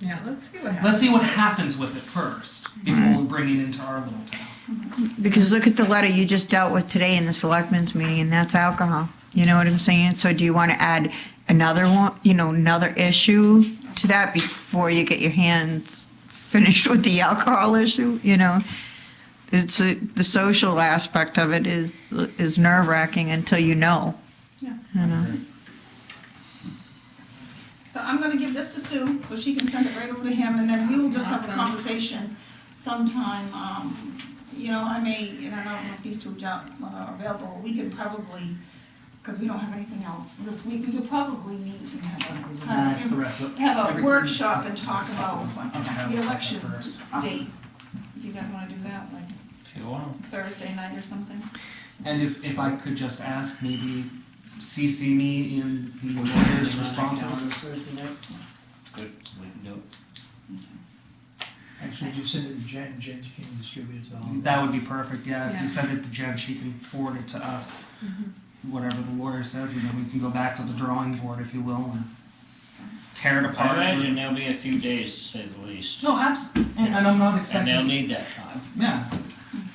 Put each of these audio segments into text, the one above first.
Yeah, let's see what happens. Let's see what happens with it first before we bring it into our little town. Because look at the letter you just dealt with today in the selectmen's meeting, and that's alcohol. You know what I'm saying? So do you want to add another one, you know, another issue to that before you get your hands finished with the alcohol issue, you know? It's, a- the social aspect of it is, is nerve wracking until you know. Yeah. You know? Uh, So I'm gonna give this to Sue, so she can send it right over to him, and then we will just have a Awesome. conversation sometime, um, you know, I may, and I don't know if these two jo- are available, we could probably, because we don't have anything else this week, we could probably meet and have a kind That's the of, rest of- have a everything. workshop and talk about the election First. date. If you guys wanna do that, like If you want. Thursday night or something? And if, if I could just ask, maybe CC me in the lawyer's responses. Good, we can do it. Actually, just send it to Jen, Jen can distribute it to all. That would be perfect, yeah. If Yeah. you send it to Jen, she can forward it to us, whatever the lawyer says, and then we can go back to the drawing board, if you will, and tear it I apart. imagine there'll be a few days, to say the least, No, absolutely, and and I'm not and expecting. they'll need that time. Yeah,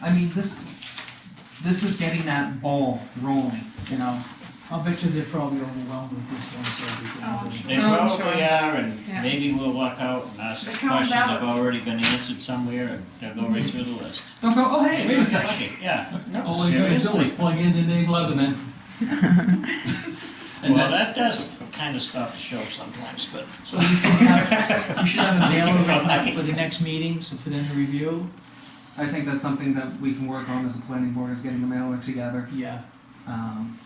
I mean this. This is getting that ball rolling, you know. I'll bet you they're probably overwhelmed with this one, so we can. Oh, I'm They Oh, I'm sure. probably are, and Yeah. maybe we'll walk out and ask They're counting questions that have ballots. already been answered somewhere, and they'll go right through the list. Don't go. Oh hey, wait a second. second. Yeah, Oh, no, All they gotta do is seriously. plug in the name Lebanon. And Well, that, that does kind of stop the show sometimes, but. So you should have, you should have a mailer of that for the next meeting, so for them to review. I think that's something that we can work on as a planning board is getting the mailer together. Yeah. Um,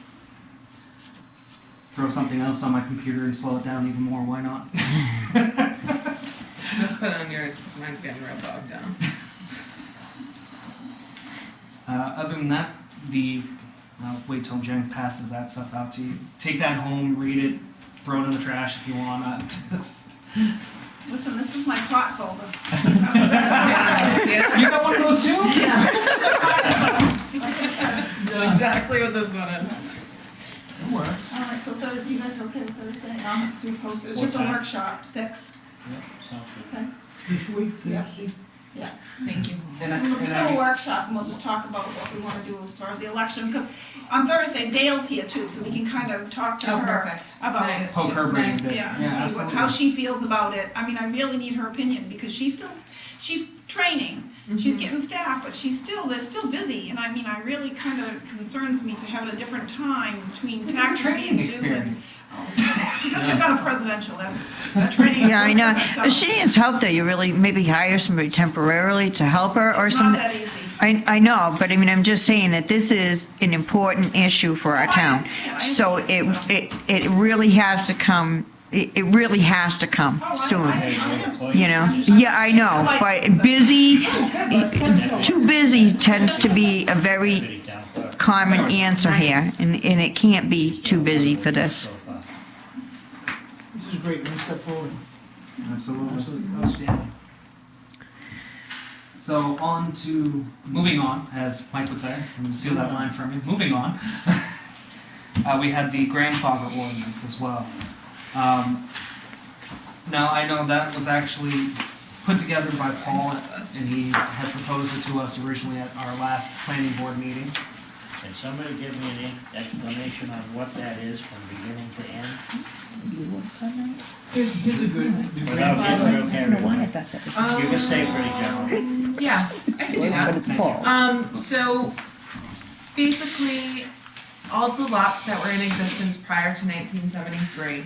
throw something else on my computer and slow it down even more. Why not? Let's put it on yours because mine's getting real bogged down. uh, other than that, the I'll wait till Jen passes that stuff out to you. Take that home, read it, throw it in the trash if you want. I Just Listen, this is my plot folder. you got one of those too? Like I said, yeah, Exactly what this one is. it works. All right, so Thursday, you guys are okay with Thursday? I'll have Sue post it. It's What just a time? workshop, six. Yeah, sounds good. This week? Yes. Thank you. And I, We'll just and have a I, workshop and we'll just talk about what we want to do as far as the election, because on Thursday Dale's here too, so we can kind of talk to Oh, her perfect. about it. Nice. poke her brain a Nice, bit. yeah Yeah, and see what, absolutely. how she feels about it. I mean, I really need her opinion because she's still, she's training. She's Mm-hmm. getting staff, but she's still, they're still busy. And I mean, I really kind of concerns me to have it a different time between It's a taxes training being due and. experience. Oh, She just got done a presidential, that's, that training. Yeah, I know. So, If she needs help though, you really maybe hire somebody temporarily to help her or It's not something. that easy. I, I know, but I mean, I'm just saying that this is an important issue for our Oh, I town. understand, I So it, understand, so- it, it really has to come, it, it really has to come Oh, I- soon, I- Hey, you're the place. you know? Yeah, I know, but busy, too busy tends to be a very Pretty down far. common answer here, and, and it can't be too busy for this. So far. This is great, one step forward, Absolutely. absolutely outstanding. So on to moving on, as Mike would say. I'm gonna Steal that line from him. Moving on. uh, we had the grandfather ordinance as well. Um, now I know that was actually put together by Paul, and he had proposed it to us originally at our last planning board meeting. Can somebody give me an e- explanation on what that is from beginning to end? Here's, here's a good, the Without grandfather, you, okay, you can stay pretty general. Yeah, I can do that. Um, so basically, all the lots that were in existence prior to nineteen seventy-three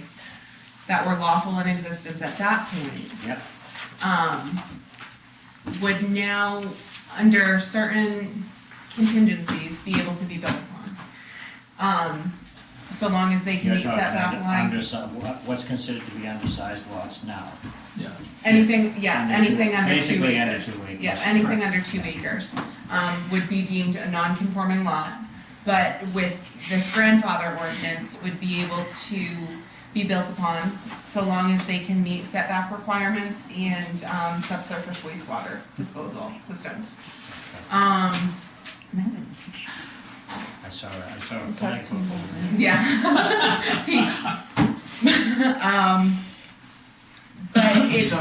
that were lawful in existence at that point. Yep. Um, would now, under certain contingencies, be able to be built upon. Um, so long as they can You're meet talking setback under- lines, undersi- what- What's considered to be undersized lots now? anything, yeah, Under- anything under two acres. Basically under two acres. Yeah, anything under two acres, um, would be deemed a non-conforming lot, but with this grandfather ordinance, would be able to be built upon so long as they can meet setback requirements and, um, subsurface wastewater disposal systems. Um, I saw, a- I saw a flag over there. yeah. Um, but it's.